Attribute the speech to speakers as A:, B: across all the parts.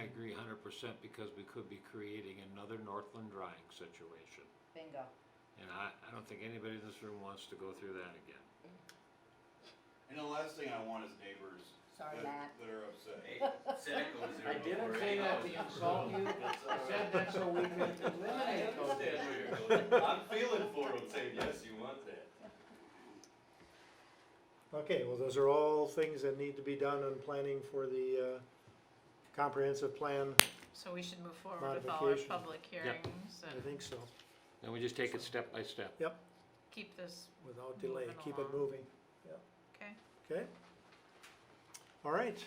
A: agree hundred percent because we could be creating another Northland drying situation.
B: Bingo.
A: And I, I don't think anybody in this room wants to go through that again.
C: And the last thing I want is neighbors
B: Sorry,
C: that,
B: Matt.
C: that are upset.
D: Hey, said it goes there.
E: I didn't say
D: Oh.
E: that to insult you, I said that so we can eliminate those.
D: I'm feeling for him, saying, yes, you want that.
F: Okay, well, those are all things that need to be done in planning for the, uh, comprehensive plan,
G: So we should move forward with all our
F: Modification.
G: public hearings
F: I
G: and
F: think so,
A: And we just take it step by step.
G: keep this,
F: without delay,
G: Moving
F: keep
G: along.
F: it moving,
G: okay?
F: okay? All right,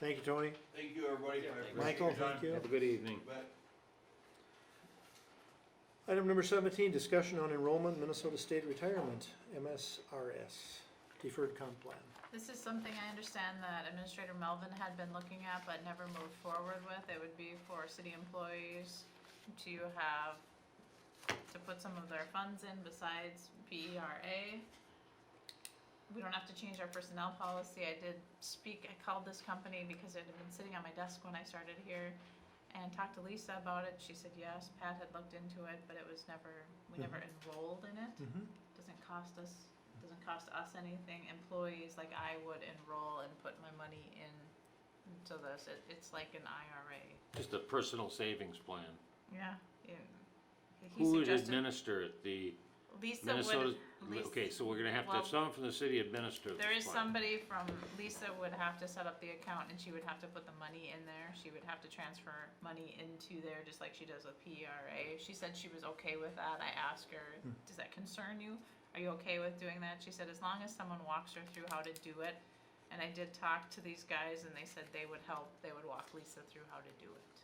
F: thank you, Tony,
C: Thank you, everybody. I appreciate your
F: Michael,
C: time.
F: thank you.
A: Have a good evening.
C: But
F: Item number seventeen, discussion on enrollment, Minnesota State Retirement, MSRS, deferred comp plan.
G: This is something I understand that Administrator Melvin had been looking at but never moved forward with. It would be for city employees to have, to put some of their funds in besides PERA. We don't have to change our personnel policy. I did speak, I called this company because it had been sitting on my desk when I started here and talked to Lisa about it. She said, yes, Pat had looked into it, but it was never, we never enrolled in it
F: Mm-hmm.
G: doesn't cost us, doesn't cost us anything, employees, like I would enroll and put my money in to this, it, it's like an IRA.
A: Just a personal savings plan.
G: Yeah. Yeah. He
A: Who would
G: suggested,
A: administer it? The
G: Lisa
A: Minnesota,
G: would, Lisa.
A: okay, so we're gonna have to
G: well,
A: have someone from the city administer this plan.
G: There is somebody from, Lisa would have to set up the account and she would have to put the money in there. She would have to transfer money into there, just like she does with PRA. She said she was okay with that. I asked her, does that concern you? Are you okay with doing that? She said, as long as someone walks her through how to do it. And I did talk to these guys and they said they would help, they would walk Lisa through how to do it.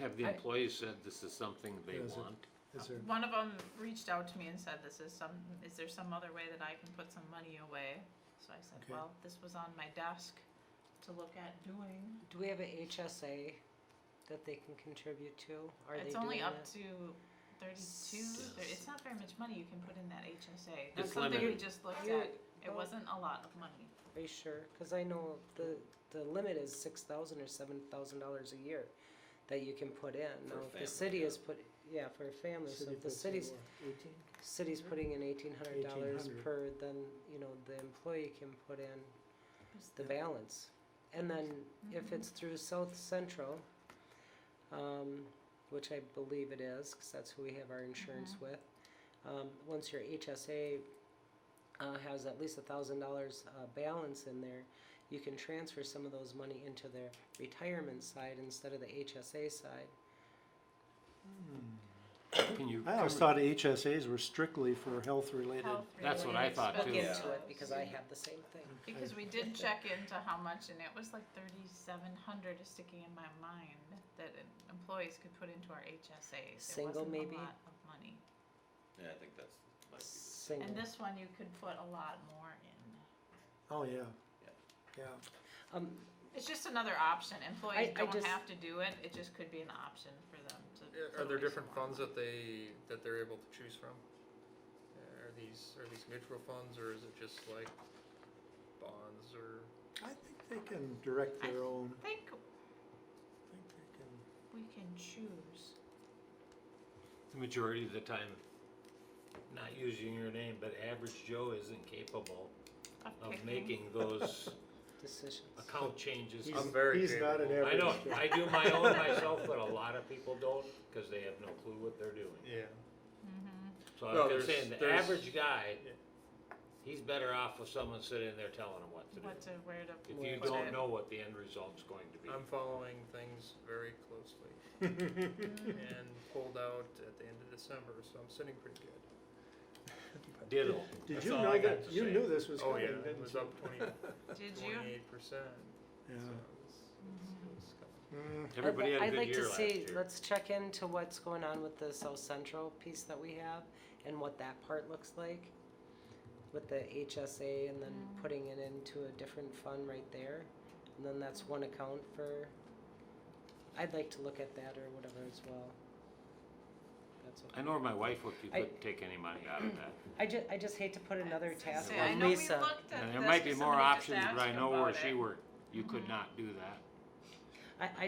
A: Have the
G: I-
A: employees said this is something they
F: Yes, it-
A: want?
F: Is there,
G: One of them reached out to me and said, "This is some. Is there some other way that I can put some money away?" So I said,
F: Okay.
G: "Well, this was on my desk to look at doing.
H: Do we have a HSA that they can contribute to? Are they
G: it's
H: doing
G: only up
H: that?
G: to thirty-two. There, it's not very much money you can put in that
A: It's
G: HSA. That's something we
A: limited.
G: just looked
H: You're-
G: at. It
H: oh.
G: wasn't a lot of money.
H: Are you sure? Cause I know the, the limit is six thousand or seven thousand dollars a year that you can put in.
D: For
H: Now,
D: a
H: if the
D: family,
H: city
D: yeah.
H: is put, yeah, for a family, so
F: city
H: if the
F: puts in
H: city's,
F: what, eighteen?
H: city's putting in eighteen hundred dollars
F: 1,800.
H: per, then, you know, the employee can put in
G: Just
H: the balance. And then if
G: Mhm.
H: it's through South Central, um, which I believe it is, cause that's who we have our insurance
G: Mm-hmm.
H: with. Um, once your HSA, uh, has at least a thousand dollars, uh, balance in there, you can transfer some of those money into their retirement side instead of the HSA side.
A: Can you?
F: I always
A: cover-
F: thought HSAs were strictly for health-related.
A: That's what I
G: health-related
A: thought, too.
H: Look
D: Yeah.
G: expenses.
H: into it, because I have the same thing.
G: Because we did check into how much, and it was like thirty-seven hundred is sticking in my mind that em- employees could put into our HSAs. It
H: Single,
G: wasn't
H: maybe?
G: A lot of money.
D: Yeah, I think that's, might be.
H: Single.
G: And this one you could put a lot more in.
F: Oh, yeah.
D: Yeah.
F: Yeah.
H: Um,
G: It's just another option. Employees
H: I
G: don't
H: just-
G: have to do it. It just could be an option for them to.
E: Are
G: to
E: there
G: raise
E: different
G: more.
E: funds that they, that they're able to choose from? Are these, are these mutual funds, or is it just like bonds, or?
F: I think they can direct their own,
G: I think
F: I think they can.
G: we can choose.
A: The majority of the time, not using your name, but average Joe isn't capable
G: of
A: of
G: picking.
A: making those
H: decisions.
A: account changes.
F: He's-
E: I'm very
F: He's not an
E: capable.
A: I
F: average.
A: don't,
F: kid.
A: I do my own myself, but a lot of people don't, cause they have no clue what they're doing.
E: Yeah.
G: Mm-hmm.
A: So
E: No,
A: I'm just
E: there's-
A: saying, the
E: there's-
A: average guy,
E: Yeah.
A: he's better off with someone sitting there telling him what to do.
G: What to, where to.
A: If you
G: put
A: don't
G: it.
A: know what the end result's going to be.
E: I'm following things very closely. And pulled out at the end of December, so I'm sitting pretty good.
A: Diddle.
F: Did
E: That's
F: you
E: all
F: know
E: I got
F: that,
E: to
F: you
E: say.
F: knew this was
E: Oh,
F: coming,
E: yeah,
F: didn't you?
E: it was up twenty,
G: Did you?
E: twenty-eight percent.
F: Yeah. Mm,
A: Everybody had a
H: I'd
A: good
H: like
A: year
H: to
A: last
H: see,
A: year.
H: let's check into what's going on with the South Central piece that we have and what that part looks like with the HSA and then
G: Mm.
H: putting it into a different fund right there. And then that's one account for, I'd like to look at that or whatever as well. That's okay.
A: I know my wife would, you
H: I-
A: could take any money out of that.
H: I ju- I just hate to put another task
G: Say, I
H: on
G: know we
H: Lisa.
G: looked at
A: And there
G: this,
A: might be
G: but
A: more
G: somebody just
A: options, but I
G: asked
H: Mm-hmm.
A: know where
G: about
A: she
G: it.
A: worked, you could not do that.
H: I, I